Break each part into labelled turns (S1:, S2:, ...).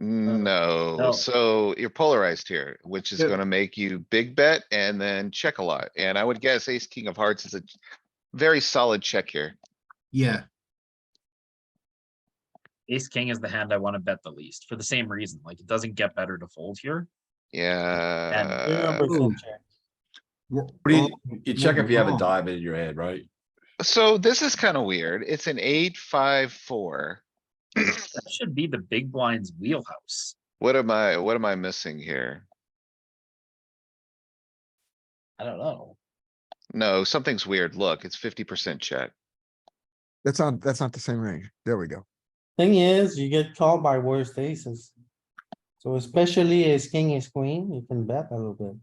S1: Mm, No,
S2: Uh,
S3: no.
S1: so you're polarized here, which is
S3: Yeah.
S1: gonna make you big bet and then check a lot. And I would guess ace, king of hearts is a very solid check here.
S4: Yeah,
S3: Ace king is the hand I wanna bet the least for the same reason. Like it doesn't get better to fold here.
S1: Yeah,
S5: Remember
S4: uh,
S5: full check.
S4: we're
S6: What do you,
S4: all-
S6: you check if you have a
S4: wrong.
S6: diamond in your hand, right?
S1: so this is kinda weird. It's an eight, five, four.
S3: That should be the big blind's wheelhouse.
S1: What am I, what am I missing here?
S3: I don't know.
S1: No, something's weird. Look, it's fifty percent check.
S2: That's not, that's not the same range. There we go.
S5: Thing is, you get called by worse aces. So especially ace king, ace queen, you can bet a little bit.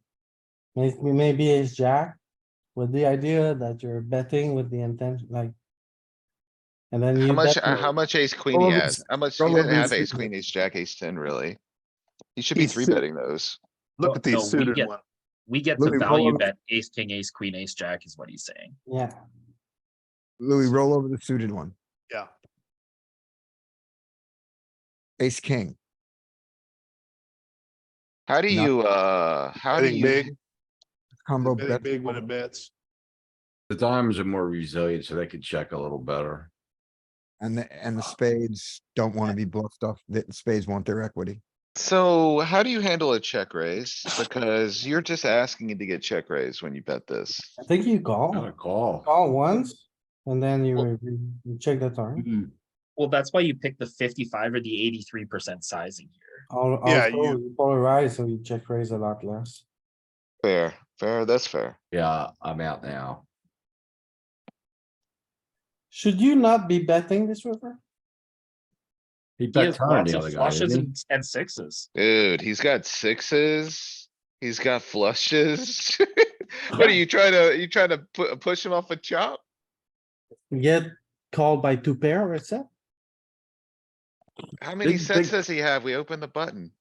S5: Maybe, maybe ace jack with the idea that you're betting with the intention, like. And then you.
S1: How much,
S5: bet
S1: uh, how
S5: with-
S1: much ace queen he
S2: Probably
S1: has?
S2: s-
S1: How much, he doesn't
S2: probably
S1: have ace
S2: suited.
S1: queen, ace jack, ace ten, really? You should be
S2: He's
S1: three
S2: suit-
S1: betting those.
S3: No,
S2: Look at
S3: no, we
S2: these suited
S3: get-
S2: ones.
S3: We get to
S2: Louis, roll
S3: value
S2: over.
S3: bet ace king, ace queen, ace jack is what he's saying.
S5: Yeah,
S2: Louis, roll over the suited one.
S7: Yeah.
S2: Ace, king.
S1: How do
S2: No.
S1: you, uh, how do
S7: Betting
S1: you?
S7: big,
S2: Combo
S7: betting
S2: bet.
S7: big when it bets.
S6: The diamonds are more resilient, so they could check a little better.
S2: And the, and the spades don't wanna be bluffed off. The spades want their equity.
S1: So how do you handle a check raise? Because you're just asking it to get check raised when you bet this.
S5: I think you
S6: Not a
S5: call,
S6: call.
S5: call once, and then you, you check the turn.
S6: Mm,
S3: Well, that's why you pick the fifty-five or the eighty-three percent sizing here.
S5: Al-
S7: Yeah,
S5: Also,
S7: you-
S5: you polarize, so you check raise a lot less.
S1: Fair, fair, that's fair.
S6: Yeah, I'm out now.
S5: Should you not be betting this river?
S6: He
S3: He
S6: bet
S3: has
S6: turn
S3: lots
S6: the
S3: of
S6: other guy,
S3: flushes
S6: didn't he?
S3: and- and sixes.
S1: Dude, he's got sixes. He's got flushes. What are you trying to, you trying to pu- uh, push him off a chop?
S5: You Get called by two pair or a set?
S1: How many
S6: Big-
S1: sets
S6: big-
S1: does he have? We open the button.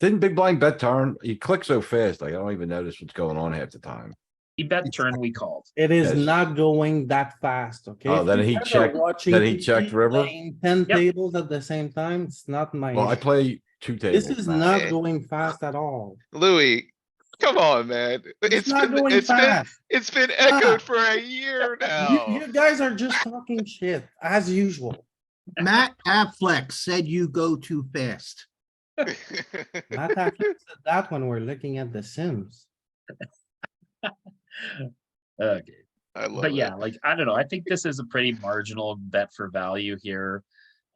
S6: Didn't big blind bet turn? He clicked so fast, like I don't even notice what's going on half the time.
S3: He bet turn, we called.
S5: It is
S6: Yes.
S5: not going that fast, okay?
S6: Oh,
S5: If
S6: then
S5: you
S6: he
S5: guys are
S6: checked-
S5: watching
S6: then he
S5: TV
S6: checked river?
S5: playing Ten
S3: Yep.
S5: tables at the same time, it's not my,
S6: Well, I
S5: issue.
S6: play two tables.
S5: this is
S6: now.
S5: not
S1: Eh.
S5: going fast at all.
S1: Louis, come on, man.
S5: It's
S1: It's
S5: not
S1: been,
S5: going
S1: it's been,
S5: fast.
S1: it's been
S5: Ah.
S1: echoed for a year
S5: You,
S1: now.
S5: you guys are just talking shit, as usual.
S4: Matt Affleck said you go too fast.
S5: Not that, that when we're looking at the Sims.
S3: Okay.
S1: I love
S3: But
S1: it.
S3: yeah, like, I don't know, I think this is a pretty marginal bet for value here.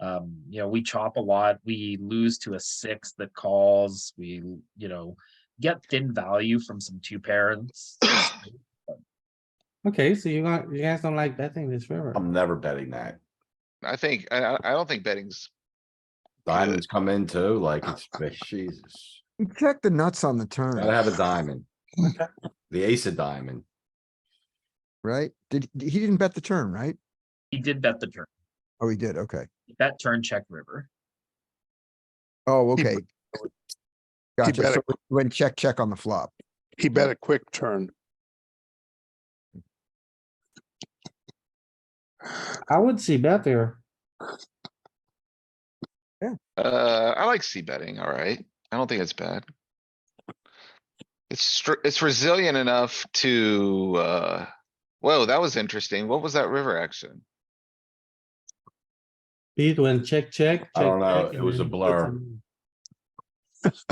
S3: Um, you know, we chop a lot, we lose to a six that calls, we, you know, get thin value from some two parents.
S5: Okay, so you got, you guys don't like betting this river.
S6: I'm never betting that.
S1: I think, I, I- I don't think betting's
S6: Diamonds come in too, like it's, Jesus.
S2: You check the nuts on the
S6: Gotta
S2: turn,
S6: have a diamond. The ace of diamond.
S2: right? Did, he didn't bet the turn, right?
S3: He did bet the turn,
S2: Oh, he did, okay.
S3: bet turn, check river.
S2: Oh,
S7: He
S2: okay.
S7: bet-
S2: Gotcha.
S7: bet
S2: So when check, check on the flop.
S7: He bet a quick turn.
S5: I would see bet there.
S1: Uh, I like C betting, alright. I don't think it's bad. It's str- it's resilient enough to, uh, whoa, that was interesting. What was that river action?
S5: Pete went check, check.
S6: I don't
S5: check,
S6: know,
S5: check,
S6: it
S5: and
S6: was a
S5: then put
S6: blur.
S5: some-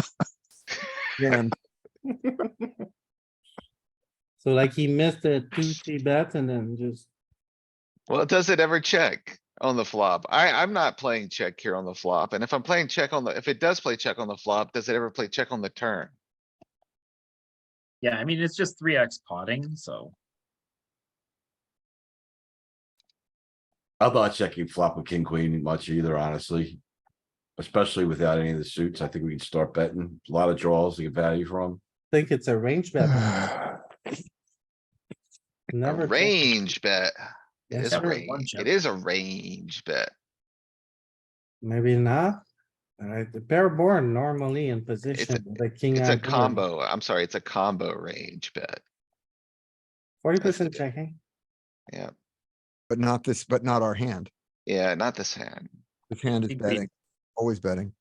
S2: Jam.
S5: So like he missed the two, three bets and then just,
S1: Well, does it ever check on the flop? I, I'm not playing check here on the flop, and if I'm playing check on the, if it does play check on the flop, does it ever play check on the turn?
S3: Yeah, I mean, it's just three X potting, so.
S6: I'm not checking flop with king, queen much either, honestly. Especially without any of the suits. I think we can start betting. A lot of draws to get value from.
S5: think it's a range bet.
S1: A
S5: Never. check.
S1: range bet. It is
S5: Yes,
S1: a
S5: sir.
S3: Never one
S1: range,
S3: check.
S1: it is a range bet.
S5: Maybe not. Alright, the pair born normally in position, with the king.
S1: It's a combo, I'm sorry, it's a combo range bet.
S5: Forty percent checking.
S2: But not this, but not our hand.
S1: Yeah, not this hand.
S2: This hand is
S3: Think we-
S2: betting, always betting.